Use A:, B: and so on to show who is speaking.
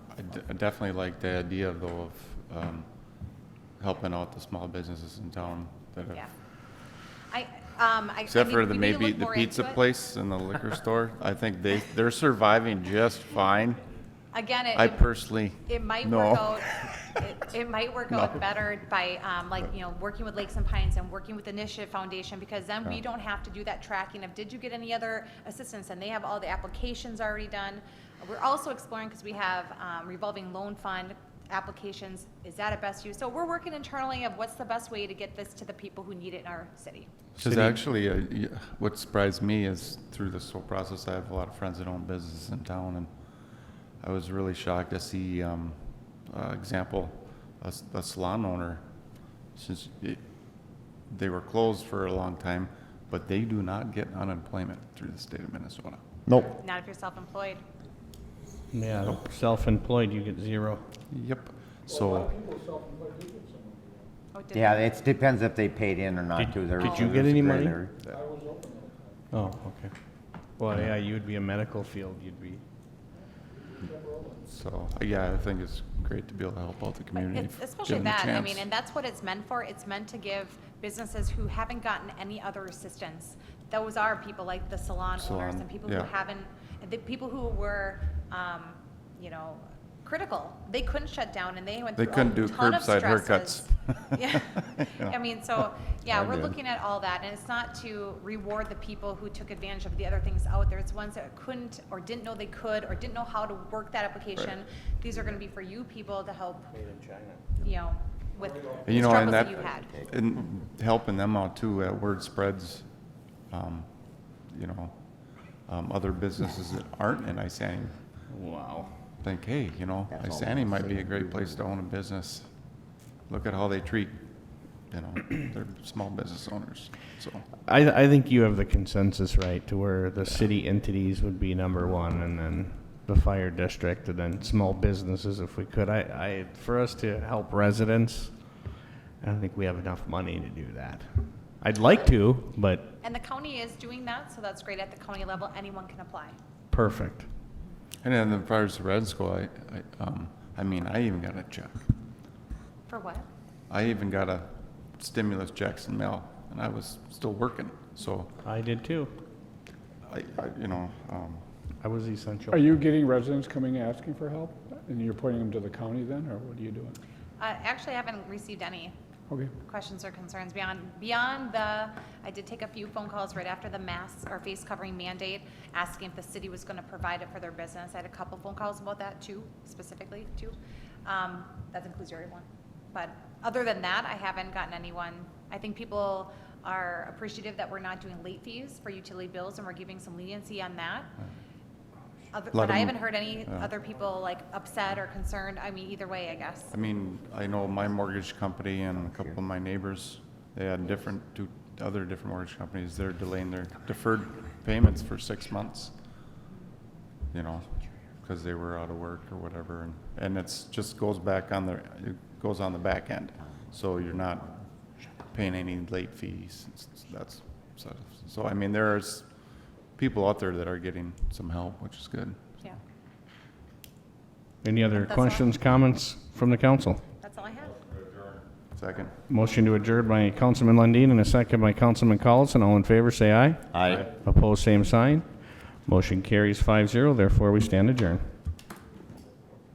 A: d- definitely like the idea though of um, helping out the small businesses in town that
B: Yeah.
A: have,
B: I, um, I. I
A: except
B: mean,
A: for
B: we
A: the
B: need to
A: maybe
B: look
A: the
B: more
A: pizza
B: into it.
A: place and the liquor store. I think they, they're surviving just fine.
B: Again, it.
A: I
B: it-
A: personally,
B: It might
A: no.
B: work out, it, it might work out
A: No.
B: better by, um, like, you know, working with Lakes and Pines and working with Initiative Foundation, because then we
A: Yeah.
B: don't have to do that tracking of, did you get any other assistance? And they have all the applications already done. We're also exploring, because we have, um, revolving loan fund applications, is that a best use? So we're working internally of what's the best way to get this to the people who need it in our city.
A: Because actually, uh, y- what surprised me is through this whole process, I have a lot of friends that own businesses in town, and I was really shocked to see, um, uh, example, a, s- a salon owner, since it, they were closed for a long time, but they do not get unemployment through the state of Minnesota.
C: Nope.
B: Not if you're self-employed.
D: Yeah, self-employed, you get zero.
A: Yep. So,
B: Oh, did-
C: Yeah, it depends if they paid in or not
D: Did-
C: too. There-
D: did you
C: there's
D: get
C: a
D: any
C: gray
D: money?
C: area.
D: Oh, okay. Well, yeah, you would be a medical field, you'd be,
A: so, yeah, I think it's great to be able to help out the
B: But
A: community.
B: it's-
A: if
B: Especially
A: given the
B: that, I
A: chance.
B: mean, and that's what it's meant for. It's meant to give businesses who haven't gotten any other assistance. Those are people like the salon owners
A: Salon,
B: and people who
A: yeah.
B: haven't, the people who were, um, you know, critical. They couldn't shut down and they went
A: They
B: through a ton
A: couldn't
B: of
A: do
B: stresses.
A: curbside haircuts.
B: Yeah,
A: You know.
B: I mean, so, yeah,
A: I
B: we're
A: did.
B: looking at all that, and it's not to reward the people who took advantage of the other things out there. It's ones that couldn't, or didn't know they could, or didn't know how to work that application. These are gonna be for you people to help you know, with
A: And
B: the
A: you know, and
B: struggles
A: that,
B: that you had.
A: and helping them out too, uh, word spreads, um, you know, um, other businesses that aren't in Isani
D: wow.
A: think, hey, you know,
C: That's all
A: Isani might be a great place to own a business. Look at how they treat, you know, their small business owners, so.
D: I, I think you have the consensus right to where the city entities would be number one and then the fire district and then small businesses if we could. I, I, for us to help residents, I don't think we have enough money to do that. I'd like to, but
B: And the county is doing that, so that's great at the county level, anyone can apply.
D: perfect.
A: And then as far as the red school, I, I, um, I mean, I even got a check.
B: For what?
A: I even got a stimulus checks in mail and I was still working, so
D: I did too.
A: I, I, you know, um,
D: I was essential.
E: Are you getting residents coming asking for help, and you're pointing them to the county then, or what are you doing?
B: Uh, Actually, I haven't received any
E: Okay,
B: questions or concerns beyond, beyond the, I did take a few phone calls right after the mask or face covering mandate, asking if the city was going to provide it for their business. I had a couple phone calls about that too, specifically too. Um, That includes your one. But other than that, I haven't gotten anyone. I think people are appreciative that we're not doing late fees for utility bills and we're giving some leniency on that. Other-
A: Lot
B: But I
A: of-
B: haven't heard any
A: yeah.
B: other people like upset or concerned. I mean, either way, I guess.
A: I mean, I know my mortgage company and a couple of my neighbors, they had different, two other different mortgage companies, they're delaying their deferred payments for six months. You know, because they were out of work or whatever, and, and it's, just goes back on the, it goes on the back end. So you're not paying any late fees, it's- it's- that's, so, so I mean, there's people out there that are getting some help, which is good.
B: Yeah,
D: Any other
B: That's all.
D: questions, comments from the council?
B: that's all I have.
A: Second.
D: Motion to adjourn by Councilman Lundin and a second by Councilman Collison. All in favor, say aye.
C: Aye.
D: Opposed, same sign. Motion carries 5-0. Therefore, we stand adjourned.